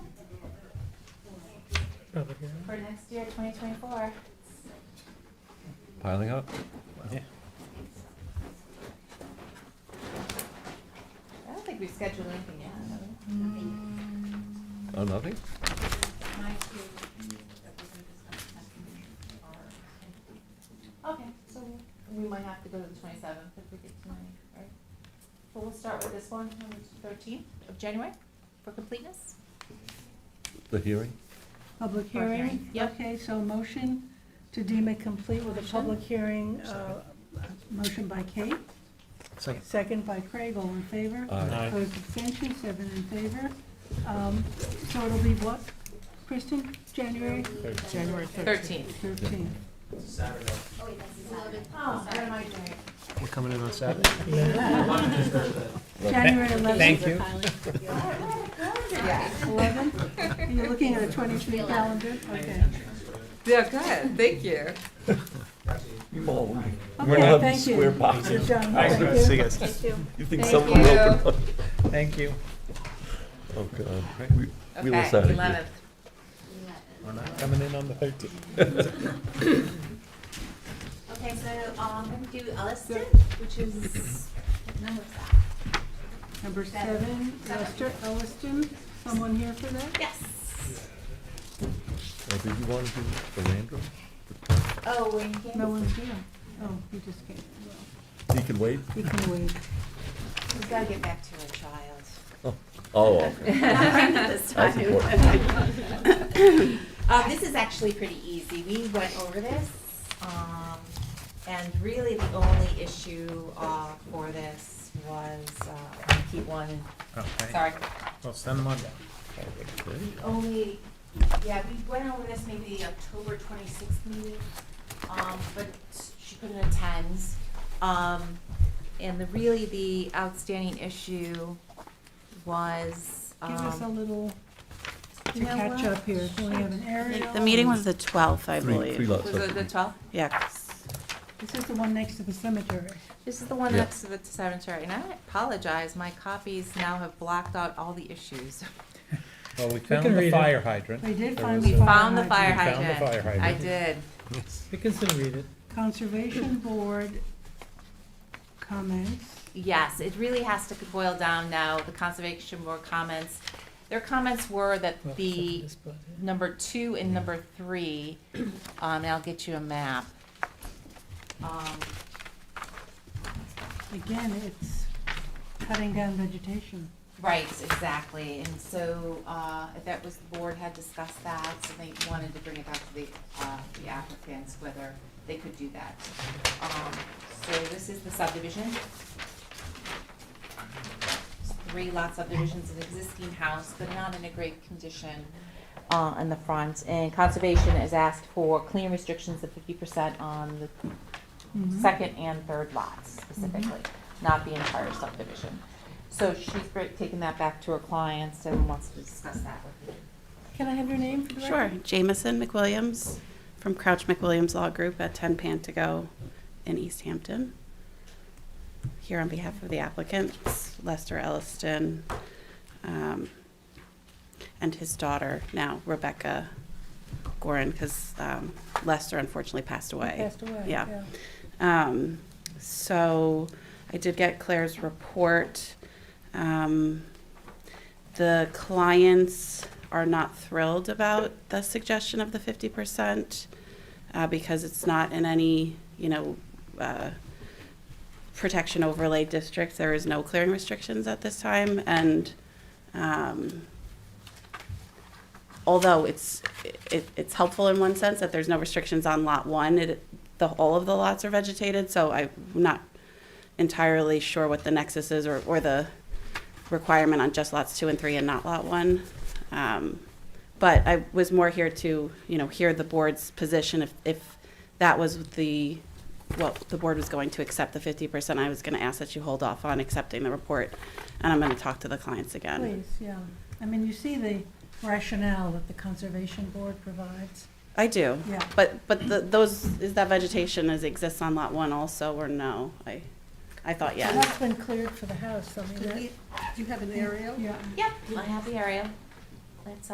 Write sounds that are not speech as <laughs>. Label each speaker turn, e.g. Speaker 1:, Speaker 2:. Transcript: Speaker 1: Public hearing.
Speaker 2: for next year, twenty twenty-four.
Speaker 3: Piling up?
Speaker 2: I don't think we've scheduled anything yet, have we?
Speaker 3: Oh, nothing?
Speaker 2: Okay, so we might have to go to the twenty-seventh if we get tonight, right? But we'll start with this one, on the thirteenth of January, for completeness.
Speaker 3: The hearing?
Speaker 2: Public
Speaker 4: Public
Speaker 2: hearing,
Speaker 4: hearing?
Speaker 2: yep.
Speaker 4: Okay, so motion to deem it complete with a public hearing, uh, motion by Kate,
Speaker 5: Second.
Speaker 4: second by Craig, all in favor?
Speaker 3: Aye.
Speaker 4: Opposed, abstentions, seven in favor. Um, So it'll be what, Kristen, January
Speaker 1: January
Speaker 2: Thirteenth.
Speaker 4: thirteenth?
Speaker 2: Oh, I remind you.
Speaker 5: We're coming
Speaker 2: <laughs>
Speaker 5: in on Saturday.
Speaker 4: January eleventh?
Speaker 5: Thank you.
Speaker 2: Yeah.
Speaker 4: Eleven? You're looking at a twenty-three calendar, okay.
Speaker 2: Yeah, good, thank you.
Speaker 3: We're not
Speaker 4: Okay, thank you.
Speaker 3: square boxes.
Speaker 4: You're done.
Speaker 5: Thanks,
Speaker 4: Thank you.
Speaker 5: See you guys.
Speaker 3: You think
Speaker 2: Thank
Speaker 3: someone
Speaker 2: you.
Speaker 3: opened up?
Speaker 5: Thank you.
Speaker 3: Oh, God. We- We will sign it.
Speaker 2: Okay, eleventh.
Speaker 5: We're not coming in on the thirteenth.
Speaker 6: <laughs> Okay, so um, I'm gonna do Elliston, which is, what number is that?
Speaker 4: Number seven, Lester Elliston, someone here for that?
Speaker 6: Yes.
Speaker 3: Oh, did you want to do the land room?
Speaker 2: Oh, Wayne came.
Speaker 4: No one's here. Oh, he just came.
Speaker 3: He can wait?
Speaker 4: He can wait.
Speaker 2: He's gotta get back to her child.
Speaker 3: Oh,
Speaker 6: <laughs>
Speaker 3: okay.
Speaker 6: This
Speaker 3: <laughs> That's
Speaker 6: time.
Speaker 3: important.
Speaker 6: <laughs> Uh, this is actually pretty easy. We went over this, um, and really the only issue, uh, for this was, uh, keep one,
Speaker 5: Okay,
Speaker 6: sorry.
Speaker 5: well, send them on down.
Speaker 6: The only, yeah, we went over this maybe the October twenty-sixth meeting, um, but she couldn't attend. Um, and the, really the outstanding issue was,
Speaker 4: Give us a
Speaker 6: um,
Speaker 4: little to
Speaker 6: you know
Speaker 4: catch
Speaker 6: what?
Speaker 4: up here. Do we have an aerial?
Speaker 7: The meeting was the 12th, I
Speaker 3: Three, three
Speaker 7: believe.
Speaker 3: lots
Speaker 6: Was it the
Speaker 3: of,
Speaker 6: twelfth?
Speaker 7: Yeah.
Speaker 4: This is the one next to the cemetery.
Speaker 6: This is the one
Speaker 3: Yeah.
Speaker 6: next to the cemetery, and I apologize, my copies now have blocked out all the issues.
Speaker 5: Well, we
Speaker 1: can
Speaker 5: found
Speaker 1: read it.
Speaker 5: the fire hydrant.
Speaker 4: We did
Speaker 5: There
Speaker 4: find
Speaker 5: was
Speaker 4: the
Speaker 6: We
Speaker 5: a-
Speaker 4: fire
Speaker 6: found the fire
Speaker 4: hydrant.
Speaker 5: We found the
Speaker 6: hydrant.
Speaker 5: fire
Speaker 6: I
Speaker 5: hydrant.
Speaker 6: did.
Speaker 1: We can still read it.
Speaker 4: Conservation Board comments.
Speaker 6: Yes, it really has to boil down now, the Conservation Board comments. Their comments were that the number two and number three, um, and I'll get you a map. Um,
Speaker 4: Again, it's cutting down vegetation.
Speaker 6: Right, exactly, and so, uh, that was, the board had discussed that, so they wanted to bring it back to the, uh, the applicants, whether they could do that. Um, so this is the subdivision. Three lot subdivisions, an existing house, but not in a great condition, uh, in the front, and conservation has asked for clean restrictions of fifty percent on the
Speaker 7: Mm-hmm.
Speaker 4: Mhm.
Speaker 6: second and third lots specifically, not the entire subdivision. So she's br- taken that back to her clients and wants to discuss that with you.
Speaker 4: Can I have your name for the
Speaker 7: Sure.
Speaker 4: record?
Speaker 7: Jameson McWilliams from Crouch McWilliams Law Group at 10 Pantago in East Hampton. Here on behalf of the applicants, Lester Elliston um, and his daughter, now Rebecca Gorin, because Lester unfortunately passed away.
Speaker 4: Passed away.
Speaker 7: Yeah. Um, so I did get Claire's report. Um, the clients are not thrilled about the suggestion of the fifty percent uh, because it's not in any, you know, uh, protection overlay districts. There is no clearing restrictions at this time, and um, although it's it, it's helpful in one sense that there's no restrictions on lot one, it the all of the lots are vegetated. So I'm not entirely sure what the nexus is or, or the requirement on just lots two and three and not lot one. Um, but I was more here to, you know, hear the board's position if, if that was the, what the board was going to accept the fifty percent, I was gonna ask that you hold off on accepting the report, and I'm gonna talk to the clients again.
Speaker 4: Please, yeah. I mean, you see the rationale that the Conservation Board provides.
Speaker 7: I do,
Speaker 4: Yeah.
Speaker 7: but, but the, those, is that vegetation is, exists on lot one also, or no? I, I thought
Speaker 4: Well,
Speaker 7: yes.
Speaker 4: That's been cleared for the house, I mean, that.
Speaker 6: we-
Speaker 4: you have an aerial? Yeah.
Speaker 6: Yep, I have the area. That's